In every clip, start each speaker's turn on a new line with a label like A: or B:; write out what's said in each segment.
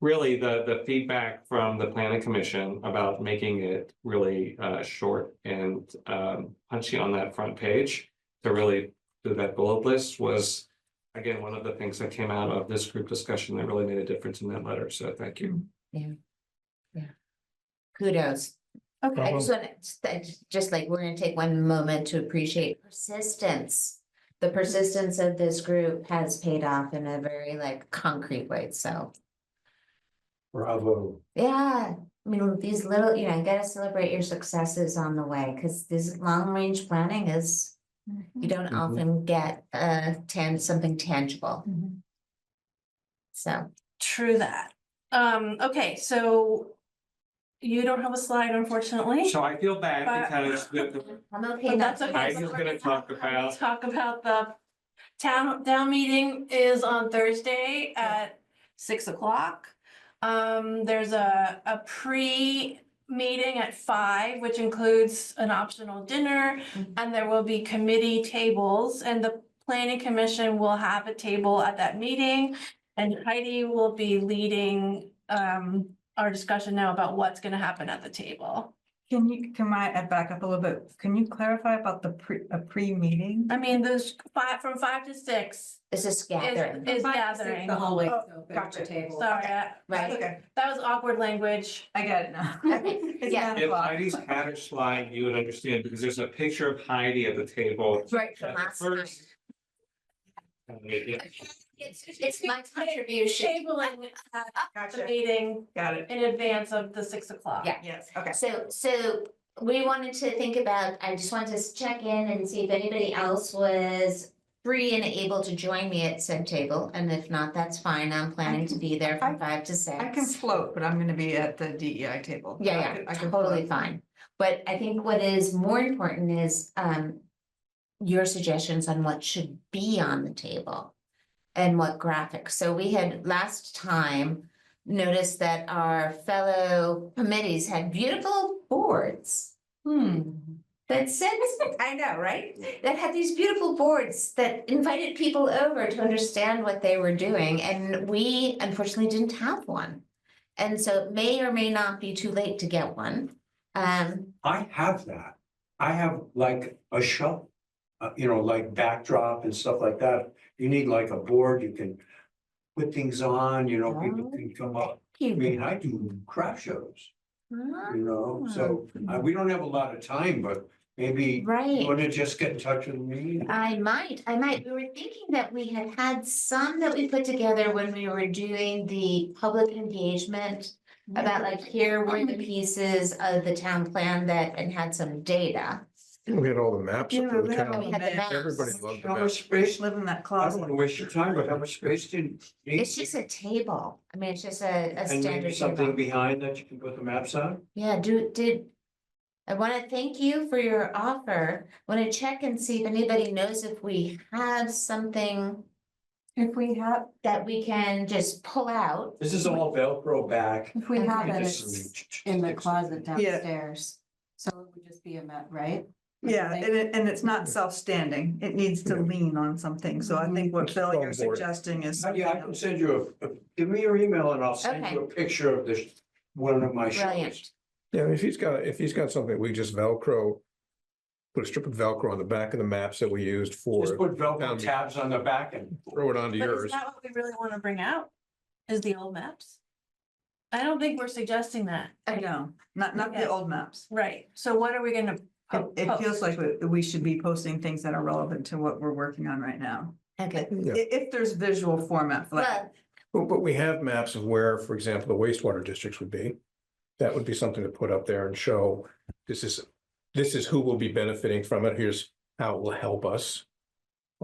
A: really the, the feedback from the planning commission about making it really, uh, short and, um, punchy on that front page to really do that bullet list was, again, one of the things that came out of this group discussion that really made a difference in that letter. So thank you.
B: Kudos.
C: Okay.
B: I just want to, just like, we're gonna take one moment to appreciate persistence. The persistence of this group has paid off in a very like concrete way, so,
D: Bravo.
B: yeah. I mean, these little, you know, you gotta celebrate your successes on the way, because this long range planning is,
C: Mm-hmm.
B: you don't
A: Mhm.
B: often get uh tan, something tangible,
C: Mhm.
B: so.
C: True that. Um, okay, so you don't have a slide unfortunately.
A: So I feel bad
C: Mm-hmm. But-
A: because the, the
B: I'm okay not
C: But that's
B: to.
C: okay.
A: I
C: so
A: was
C: we're
A: gonna talk about-
C: Talk about the town, town meeting is on Thursday at six o'clock. Um, there's a, a pre-meeting at five, which includes an optional dinner.
B: Mhm.
C: And there will be committee tables and the planning commission will have a table at that meeting. And Heidi will be leading, um, our discussion now about what's gonna happen at the table.
E: Can you, can I uh, back up a little bit? Can you clarify about the pre, a pre-meeting?
C: I mean, those five, from five to six,
B: It's a
C: is,
B: scattering,
C: is gathering.
F: The hallway.
E: Oh, gotcha.
C: Sorry, I-
B: right?
E: Okay,
C: that was awkward language.
E: I get it now. It's
B: Yeah.
E: nine
A: If
E: o'clock.
A: Heidi's had her slide, you would understand because there's a picture of Heidi at the table.
B: Right
A: at the first. Uh, yeah.
B: It's, it's my contribution.
C: Tabling at the
E: Gotcha,
C: meeting
E: got it.
C: in advance of the six o'clock.
B: Yeah.
E: Yes, okay.
B: So, so we wanted to think about, I just wanted to check in and see if anybody else was free and able to join me at said table, and if not, that's fine, I'm planning to be there from five to
E: I can
B: six.
E: float, but I'm gonna be at the DEI table. I
B: Yeah,
E: can- I
B: yeah,
E: can
B: totally
E: float.
B: fine, but I think what is more important is, um, your suggestions on what should be on the table and what graphics, so we had last time noticed that our fellow committees had beautiful boards
E: Hmm,
B: that said, I know, right? That had these beautiful boards that invited people over to understand what they were doing, and we unfortunately didn't have one. And so it may or may not be too late to get one. Um,
D: I have that. I have like a shelf, uh, you know, like backdrop and stuff like that. You need like a board, you can put things on, you know, people can come up. I mean, I do crap shows, you know,
B: Ah.
D: so uh, we don't have a lot of time, but maybe you
B: right,
D: want to just get in touch with me?
B: I might, I might, we were thinking that we had had some that we put together when we were doing the public engagement. About like here were the pieces of the town plan that, and had some data.
G: We had all the maps
E: Yeah,
G: up for
E: we
G: the
D: Oh.
E: had
G: town.
B: We had the maps.
G: Everybody loved the
E: how much
G: maps.
E: space live in that
D: I don't want
E: closet?
D: to waste your time, but how much space do you need?
B: It's just a table. I mean, it's just a, a
D: And maybe
B: standard
D: something
B: table.
D: behind that you can put the maps on?
B: Yeah, do, did. I want to thank you for your offer. Want to check and see if anybody knows if we have something
E: If we have,
B: that we can just pull out.
D: This is all Velcro back.
F: If we
B: Okay.
F: have it, it's
D: It's
F: in the closet downstairs, so it would just be a mat, right?
E: yeah, and it, and it's not self-standing. It needs to lean on something. So I think what Bill, you're
G: Strong board.
E: suggesting is.
D: Yeah, I can send you, a give me your email and I'll send you a picture of this, one of my
B: Brilliant.
D: shows.
G: Yeah, if he's got, if he's got something, we just Velcro. Put a strip of Velcro on the back of the maps that we used
D: Just
G: for,
D: put Velcro tabs on the back and.
G: throw it onto
C: But is
G: yours.
C: that what we really want to bring out? Is the old maps? I don't think we're suggesting that.
E: No, not, not
C: Okay.
E: the old maps.
C: Right, so what are we gonna?
E: It,
C: po-
E: it feels
C: post?
E: like we, we should be posting things that are relevant to what we're working on right now.
B: Okay.
G: Yeah.
E: I- if there's visual format, for like,
B: Well,
G: But, but we have maps of where, for example, the wastewater districts would be. That would be something to put up there and show, this is, this is who will be benefiting from it, here's how it will help us.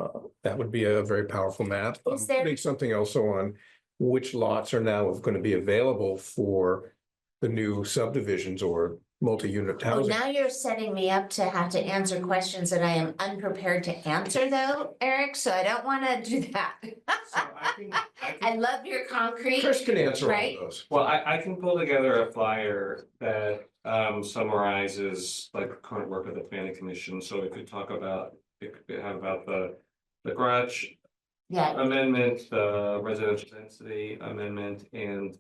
G: Uh, that would be a very powerful map. Um,
B: Is there-
G: Putting something also on which lots are now gonna be available for the new subdivisions or multi-unit
B: oh,
G: housing.
B: now you're setting me up to have to answer questions that I am unprepared to answer though, Eric, so I don't want to do that.
A: So I can- I can-
B: I love your concrete.
G: Chris can answer all
B: Right.
G: of those.
A: Well, I, I can pull together a flyer that um summarizes like current work of the planning commission, so we could talk about. It could have about the, the garage
B: Yeah,
A: amendment, the residential density amendment and